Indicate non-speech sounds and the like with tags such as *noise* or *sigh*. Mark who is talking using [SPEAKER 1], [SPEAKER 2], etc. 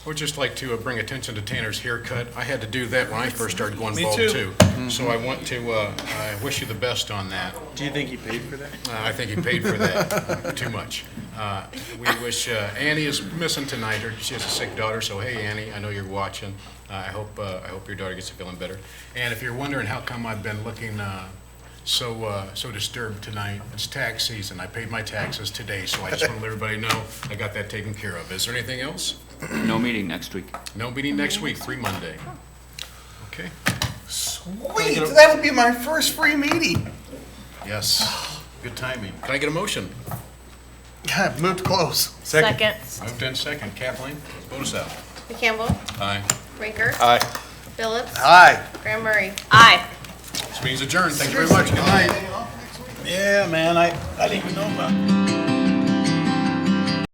[SPEAKER 1] I would just like to uh, bring attention to Tanner's haircut. I had to do that when I first started going
[SPEAKER 2] Me
[SPEAKER 1] bald,
[SPEAKER 2] too. Mm-hmm.
[SPEAKER 1] too. So I want to, uh, I wish you the best on that.
[SPEAKER 2] Do you think he paid for that?
[SPEAKER 1] Uh, I think he paid for that
[SPEAKER 2] *laughs*
[SPEAKER 1] uh, too much. Uh, We wish, uh, Annie is missing tonight, her, she has a sick daughter, so hey, Annie, I know you're watching. Uh, I hope, uh, I hope your daughter gets feeling better. And if you're wondering how come I've been looking uh, so, uh, so disturbed tonight, it's tax season. I paid my taxes today, so I just want to let everybody know I got that taken care of. Is there anything else?
[SPEAKER 3] No meeting next week.
[SPEAKER 1] No meeting next week, free Monday. Okay,
[SPEAKER 2] Wait, that would be my first free meeting.
[SPEAKER 1] yes.
[SPEAKER 2] Good timing.
[SPEAKER 1] Can I get a motion?
[SPEAKER 2] God, moved close.
[SPEAKER 4] Second.
[SPEAKER 1] Moved in second. Kathleen, vote us out.
[SPEAKER 4] Campbell.
[SPEAKER 1] Aye.
[SPEAKER 4] Rinker.
[SPEAKER 2] Aye.
[SPEAKER 4] Phillips.
[SPEAKER 2] Aye.
[SPEAKER 4] Graham Murray. Aye.
[SPEAKER 1] This meeting's adjourned. Thank you very much. Good night.
[SPEAKER 2] Yeah, man, I, I didn't even know about.